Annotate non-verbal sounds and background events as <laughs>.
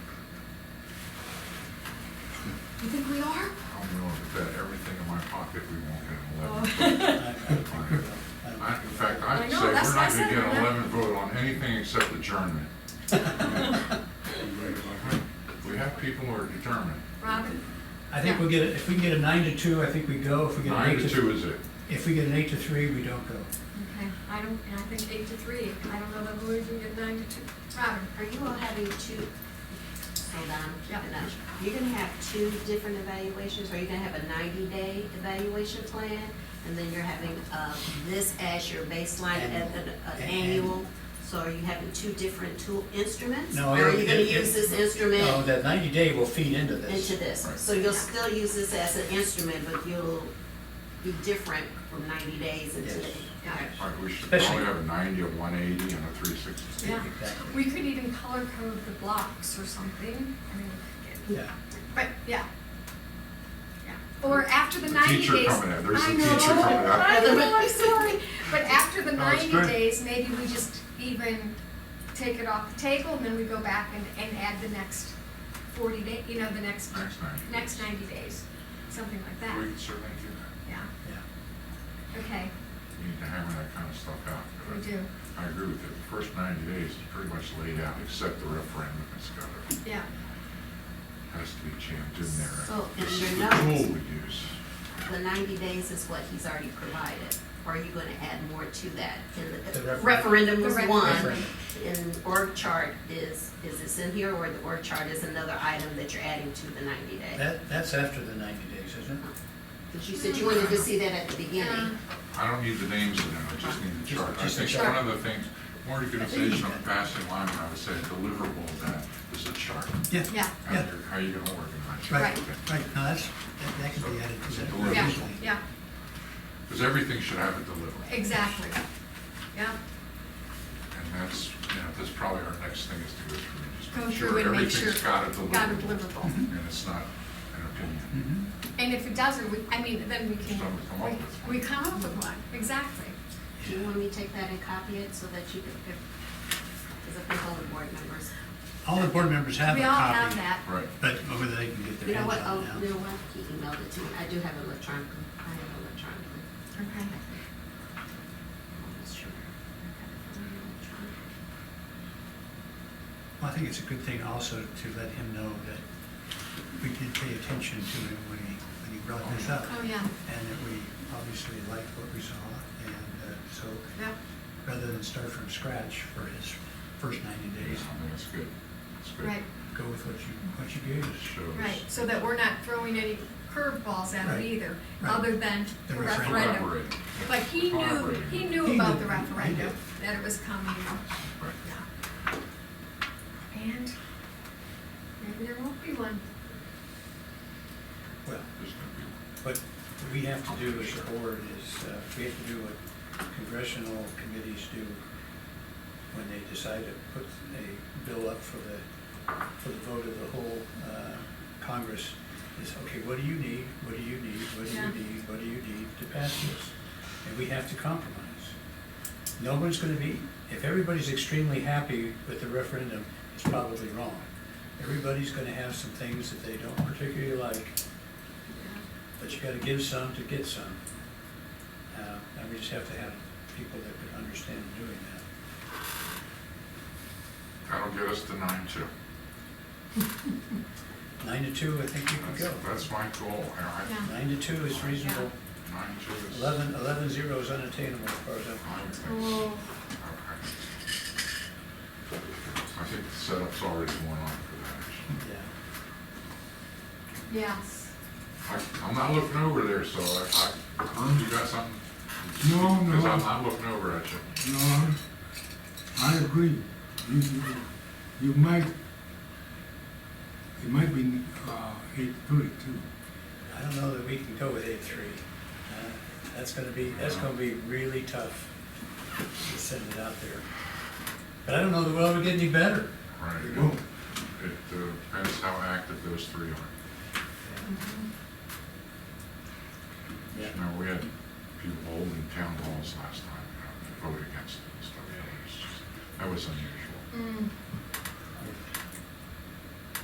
if we won't get an eleven. Oh. <laughs> I- I don't think we will. I don't I- In think we fact, will. I'd I know, say we're that's why I not said gonna get an we're not- eleven vote on anything except adjournment. We have people who are determined. Robin? I think we'll get, a- if we can get a nine to two, I think we go. If we get an Nine eight to to, two is it? if we get an eight to three, we don't go. Okay, I don't, and I think eight to three, I don't know that we would get nine to two. Robin? Are you all having two, hold on, Yeah. hold on. You're gonna have two different evaluations, are you gonna have a ninety-day evaluation plan? And then you're having, uh, this as your baseline at an, an annual? So are you having two different tool instruments? No, Or are you it- gonna it- use this instrument No, that ninety day will feed into this. into this? So you'll still use this as an instrument, but you'll be different from ninety days until. Yes. Got it. Like, we should Especially- probably have a ninety, a one eighty, and a three sixty. Yeah. Exactly. We could even color code the blocks or something. I mean, we could get- Yeah. But, yeah. Yeah. Or after the The ninety days. teacher coming in. There's I the know. teacher coming in. I know, I'm sorry. But after the No, it's ninety good. days, maybe we just even take it off the table and then we go back and, and add the next forty day, you know, the next, Next 90 days. next ninety days, something like We that. can certainly do that. Yeah, Yeah. okay, We need to hammer that kind of stuff out. but we do, I agree with you. The first ninety days is pretty much laid out, except the referendum is got to, yeah. has to be jammed in there. So, in This is your the tool notes- we use. The ninety days is what he's already provided, or are you gonna add more to that? And the- The refer- Referendum The was ref- one, Referendum. and org chart is, is this in here, or the org chart is another item that you're adding to the ninety day? That, that's after the ninety days, isn't it? Because you said you wanted to see that at the Yeah. beginning. I don't need the names in them, I just need the Just- chart. I just the think chart. one of the things, more organization of passing line, I would say deliverable of that is a chart. Yeah. How Yeah. you're, how you're gonna organize Right, it. right. No, that's, that, that can be added to that. Yeah. very Yeah, easily. yeah, Because everything should have a deliverable. exactly. Yeah, And that's, you know, that's probably our next thing is to go through and just go make through sure and make sure. everything's got a Got a deliverable. deliverable. Mm-hmm. And it's not an opinion. Mhm. And if it doesn't, we, I mean, then we can, Someone come up with one. we, we come up with one, exactly. Do you want me to take that and copy it so that you can, because I think all the board members, All the board members have a We all have copy, that. Right. but whether they can get you their hands know what, on oh, it now. you know what, he emailed it to me, I do have it electronically, I have it electronically. Okay. Almost sure. I have it electronically. Well, I think it's a good thing also to let him know that we did pay attention to him when he, when he brought this up. Oh, yeah, And that we obviously liked what we saw, and uh, so yeah, rather than start from scratch for his first ninety I days, think that's good. That's good. right, go with what you, what you gave It us. shows. right, so that we're not throwing any curveballs at it Right, either, right. other than The the referendum. referendum. Collaborate. But he knew, Collaborate. he He knew about knew, the he referendum, did. that it was coming, Right. yeah. And maybe there won't be one. Well, There's gonna be one. what we have to do as a board is, uh, we have to do what congressional committees do when they decide to put a bill up for the, for the vote of the whole uh, Congress, is, okay, what do you need, what do you need, what do you Yeah. need, what do you need to pass this? And we have to compromise. No one's gonna be, if everybody's extremely happy with the referendum, it's probably wrong. Everybody's gonna have some things that they don't particularly like, Yeah. but you gotta give some to get some. Uh, And we just have to have people that could understand doing that. That'll get us to nine two. Nine to two, I think you could That's, go. that's my goal. I- Yeah. Nine to two is reasonable. I- Nine two is. Eleven, eleven zero is unattainable as far as I'm I would concerned. think so. Oh, I think the setup's already going on for that. actually. Yeah. yes. I- I'm not looking over there, so I, I, Herm, you got something? No, no. Because I'm not looking over at you. No, I- I agree. You, you, you might, it might be, uh, eight three too. I don't know that we can go with eight three. Uh, That's gonna be, that's gonna be really tough to send it out there. But I don't know that we'll ever get any better. Right. It won't. It uh, depends how active those three are. Yeah. You know, we had people holding town halls last time, you know, to vote against it and stuff. That was just- That was unusual. Mm.